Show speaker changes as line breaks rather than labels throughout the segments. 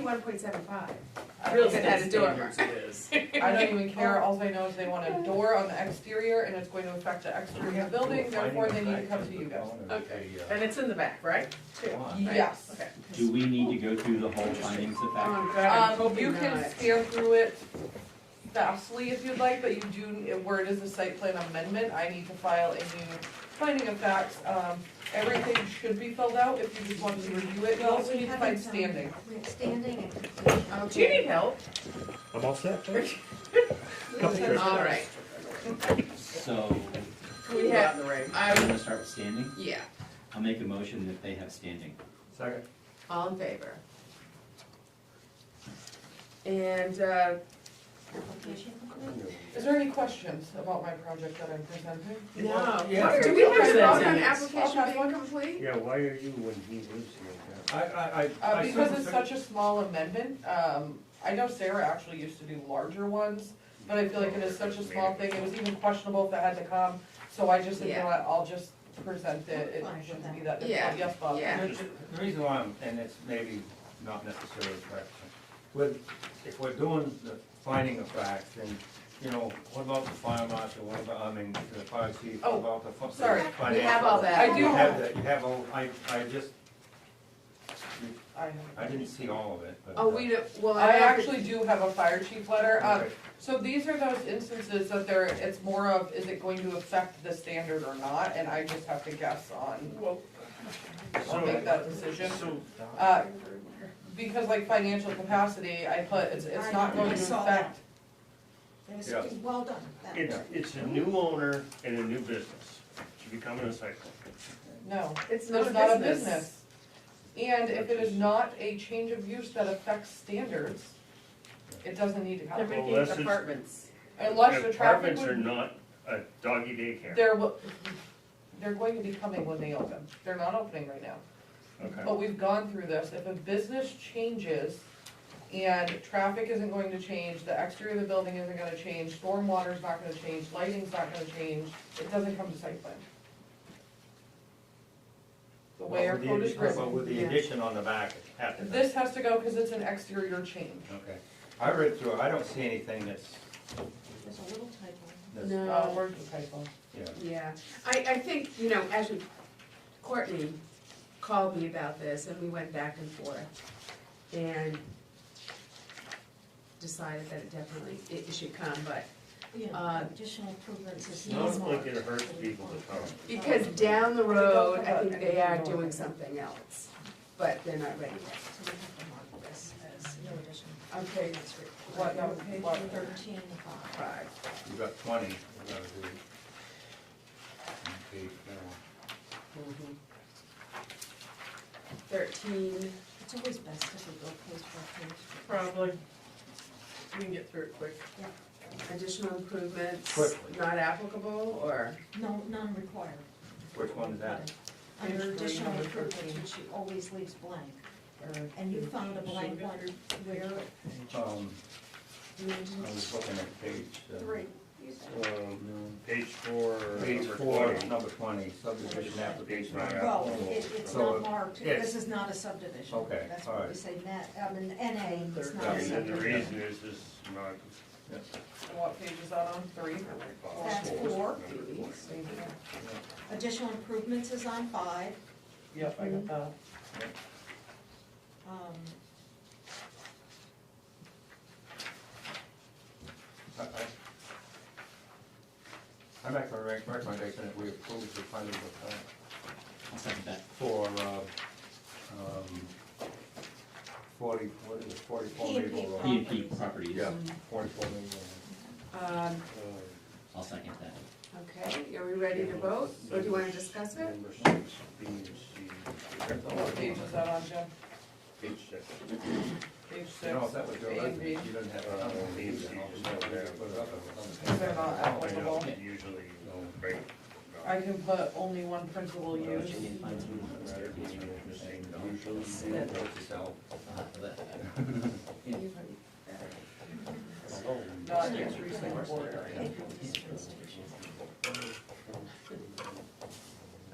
one point seven five.
I
Real
don't even
estate
know
standards
the standards it is.
I don't even care, all I know is they want a door on the exterior and it's going to affect the exterior of the building, therefore they need to come to you guys.
Okay, and it's in the back, right? Too.
Why?
Right,
Yes.
Okay.
Do we need to go through the whole findings of fact?
Oh, God, I'm
Um,
hoping
you can
not.
scan through it fastly if you'd like, but you do, where it is a site plan amendment, I need to file a new finding of facts. Um, everything should be filled out if you just want to review it, you also need to find standing.
We're standing and completion.
Do you need help?
I'm all set. Couple trips.
All right.
So,
We have in the rain.
I'm
I,
gonna start with standing.
yeah,
I'll make a motion that they have standing.
Second.
all in favor. And, uh,
Application.
Is there any questions about my project that I'm presenting?
no,
Yeah.
Why are
Do
you
we have
doing
to
that?
vote on
Okay.
application being
complete?
Yeah, why are you when he lives here?
I, I, I.
Uh,
I
because
sort
it's
of-
such a small amendment, um, I know Sarah actually used to do larger ones, but I feel like it is such a small thing, it was even questionable if it had to come, so I just said, you know what, I'll just present it, it shouldn't be that
Yeah.
difficult, yes, Bob?
Yeah.
The reason why, I'm- and it's maybe not necessarily correct, with, if we're doing the finding of facts, then, you know, what about the fire marshal, what about, I mean, the fire chief, what
Oh,
about the. fu-
sorry.
the
We have
financial-
all that.
I do
You have
have-
that, you have all, I, I just,
I have.
I didn't see all of it, but.
Oh,
uh,
we, don't- well,
I
I have
actually do have a fire chief letter, um,
okay.
So these are those instances that there, it's more of, is it going to affect the standard or not, and I just have to guess on,
Well,
I'll make
so,
that decision.
so,
Uh, because like financial capacity, I put, it's, it's not going to
I saw
affect
There's-
Yeah.
Well done. That
it's,
was-
it's a new owner and a new business, she's becoming a site plan.
No,
It's
it's not a business. And if it is not a change of use that affects standards, it doesn't need to
They're
come.
Well,
making
that's just-
apartments.
Unless the traffic
Apartments are
would,
not a doggy daycare,
they're, wi- they're going to be coming when they open. They're not opening right now.
okay,
But we've gone through this. If a business changes and traffic isn't going to change, the exterior of the building isn't gonna change, stormwater's not gonna change, lighting's not gonna change, it doesn't come to site plan. The way our
With the
code is
addition- But
written,
with the
Yeah.
addition on the back, it happened.
this has to go because it's an exterior change.
Okay, I read through, it. I don't see anything that's,
There's a little typo.
that's,
No.
Uh, where's the typo?
yeah.
Yeah, I, I think, you know, actually Courtney called me about this and we went back and forth and decided that it definitely, it it should come, but,
Yeah,
Uh,
additional improvements is.
Sounds
not-
like it hurts people to come.
because down the road, I think they are doing something else, but they're not ready yet.
So we have to mark this as no additional.
Okay,
What, no, what?
Thirteen five.
five.
You got twenty, we gotta do. Okay, now,
Thirteen,
It's always best if we go page by page.
probably. We can get through it quick. Additional improvements,
Quickly.
not applicable, or?
No, none required.
Which one is that?
Under
Page three,
additional
number
improvements,
13.
which she always leaves blank, and you found a blank one where
Um, I was looking at page. uh,
three.
Um, Page four,
Page
number
four,
twenty.
number twenty, subdivision application.
Right.
Well,
approval.
it, it's
So,
not marked,
yes.
this is not a subdivision.
Okay,
That's
all
what we
right.
say, net, I mean, NA, it's not
Yeah,
a
And then the
subdivision.
reason is this not
What page is that on? Three?
That's
possible.
four.
Number four.
Additional improvements is on five,
Yep, I got that.
um,
I- I- I make a rec- recommendation that we approve the finding of fact
I'll second that.
for, uh, um, forty, what is it, forty-four
P and P
Maple Road?
P and P properties.
Yeah, forty-four Maple
Um,
I'll second that.
okay, are we ready to vote, or do you wanna discuss
Road.
it?
Number six, B and C.
What page is that on, Jim?
Page six.
Page six?
You know, if that was your
A and B.
residence, you didn't have a
Uh, B and
leave
C.
it all.
is not there.
They're not
I
applicable.
know, Usually, no, right. no.
I can put only one principal use. Not accessory single area.
April dispensation.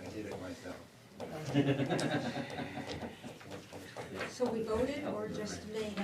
I did it myself.
So we voted or just made